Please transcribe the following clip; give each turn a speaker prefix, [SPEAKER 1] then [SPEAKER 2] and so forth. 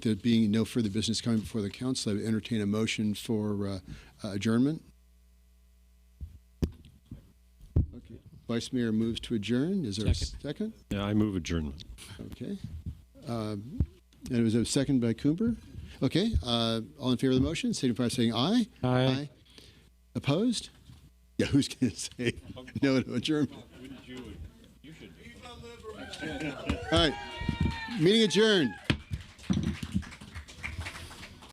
[SPEAKER 1] There being no further business coming before the council, I would entertain a motion for uh, adjournment. Okay. Vice Mayor moves to adjourn. Is there a second?
[SPEAKER 2] Yeah, I move adjournment.
[SPEAKER 1] Okay. Um, And it was a second by Cooper. Okay, uh, all in favor of the motion, signify by saying aye. Aye. Opposed? Yeah, who's going to say no to adjournment? All right, meeting adjourned.